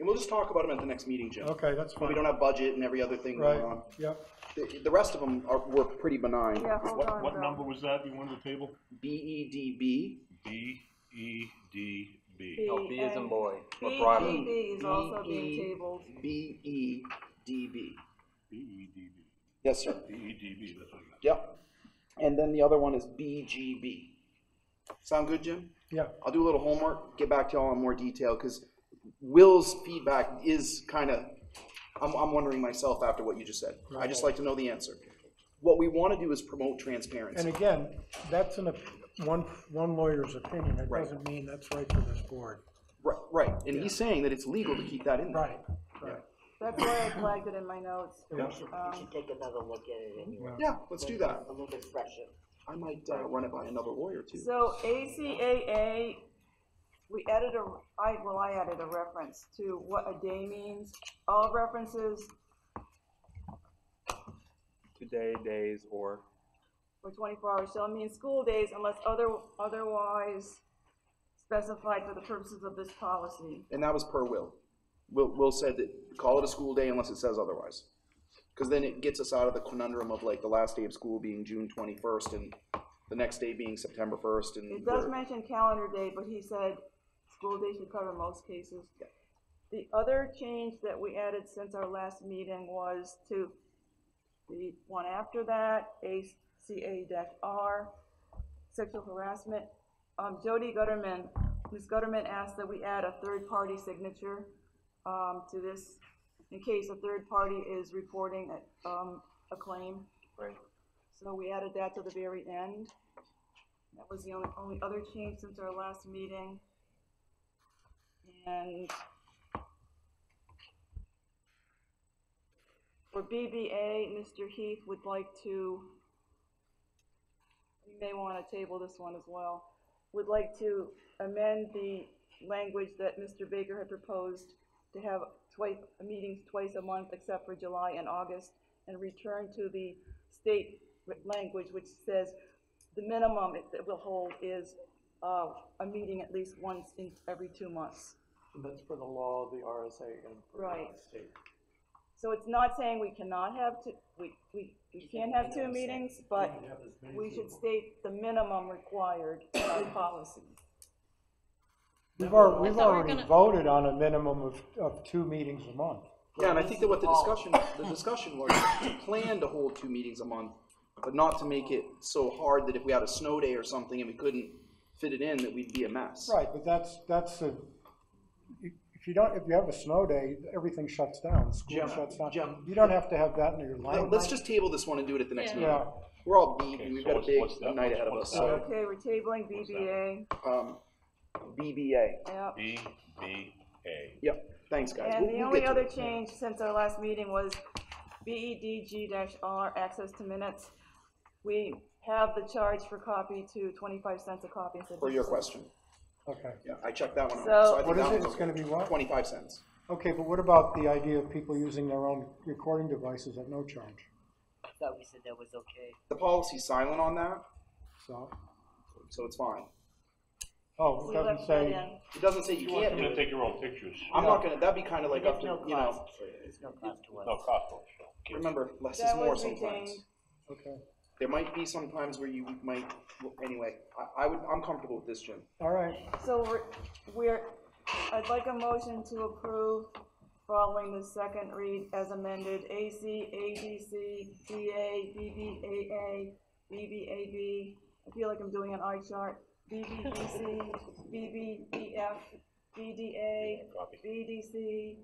we'll just talk about them at the next meeting, Jim. Okay, that's But we fine. don't have budget and every other thing Right, going on. yep. The, the rest of them are, were pretty benign. Yeah, hold on, What Bill. number was that you wanted to table? B E D B, B, E, D, B. No, B as in And boy, or Brian. BDB E is also being tabled. E B E D B. B, E, D, B. Yes, sir. B, E, D, B, that's what it Yep. And then the other one is B G B. Sound good, Jim? Yeah, I'll do a little homework, get back to y'all in more detail, because Will's feedback is kind of, I'm, I'm wondering myself after what you just said. I just like to know the answer. What we want to do is promote and transparency. again, that's an, op- one, one lawyer's opinion, it Right. doesn't mean that's right for this board. Right, right, and he's saying that it's legal to keep that in there. Right, right. That's why I flagged it Um, in my notes. Yeah. We should, Um, we should take another look at it anyway. Yeah, let's do that. A little bit fresher. I might uh, run it by another lawyer too. So ACAA, we added a, I, well, I added a reference to what a day means. All references Today, days, or, for twenty-four hours shall mean school days unless other, otherwise specified for the purposes of this policy. And that was per Will. Will, Will said that, call it a school day unless it says otherwise. Because then it gets us out of the conundrum of like the last day of school being June twenty-first and the next day being September first and. It does we're- mention calendar day, but he said school day should cover most cases. The other change that we added since our last meeting was to the one after that, ACA R, sexual harassment. Um, Jody Gutterman, Ms. Gutterman asked that we add a third-party signature, um, to this in case a third party is reporting, a- um, a claim. right? So we added that to the very end. That was the only, only other change since our last meeting. And for BBA, Mr. Heath would like to, you may want to table this one as well, would like to amend the language that Mr. Baker had proposed to have twice, meetings twice a month except for July and August, and return to the state r- language which says the minimum it it will hold is, uh, a meeting at least once in every two months. That's for the law, the RSA, and for Right. the state. So it's not saying we cannot have two, we, we, we can have two meetings, but we should state the minimum required by policy. We've already, we've So we're already gonna- voted on a minimum of, of two meetings a month. Yeah, and I think that what the Oh. discussion, the discussion was to plan to hold two meetings a month, but not to make it so hard that if we had a snow day or something and we couldn't fit it in, that we'd be a mess. Right, but that's, that's a, if you don't, if you have a snow day, everything shuts down, school Jim, shuts down. Jim. You don't have to have that in your Now, life. Let's just table this one and do it at the next Yeah. meeting. Yeah, We're all beat and Okay, we've so got a what's- big what's that? night ahead of us, What's so, Okay, we're tabling BBA, um, BBA. yep. is. B, B, A. Yep, thanks, guys. And We'll- the we'll only get to other it. change since our last meeting was E BEDG R, access to minutes. We have the charge for copy to twenty-five cents a copy. instead of For your 50 question, okay. yeah, I checked that one out. So- I think What is that it? one's It's gonna be what? Twenty-five cents. Okay, but what about the idea of people using their own recording devices at no charge? I thought we said that was okay. The policy's silent on that, So, so it's fine. oh, it We left doesn't that uh, say, in. It doesn't say you You want can't them do to it. take your own pictures. I'm not gonna, that'd be kinda like up There's to, no you know, cost, there's no cost to us. Oh. No, Costco, so. remember, less is That more was sometimes. retained. okay, There might be some times where you might, well, anyway, I, I would, I'm comfortable with this, Jim. all right. So we're, we're, I'd like a motion to approve following the second read as amended, AC, ADC, DA, BBAA, BBAB. I feel like I'm doing an eye chart, BBBC, BBBF, BDA, BDC,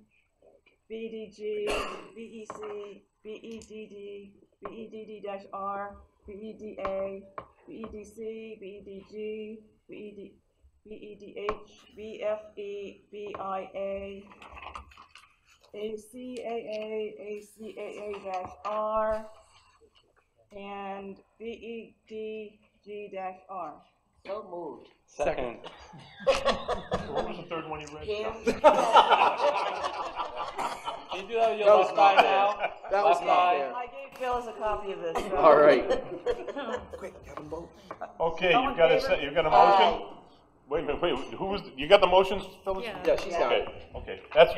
BDG, E BEC, E BEDD, BEDD dash E R, E BEDA, E BEDC, BEDG, BED, E BEDH, BFE, BIA, ACAA, ACAA dash R, and BEDG dash R. So moved. Second, What was the third one you read? can you do that That with your was left not eye fair. now? That was Left not eye. fair. I gave Phyllis a copy of this. so- All right. Quick, have them vote. Okay, All in you've got a, favor? se- you've got a motion? Wait a minute, wait, who was, you got the motions, Phyllis? Yeah. Yeah, she's got it. Okay, okay, that's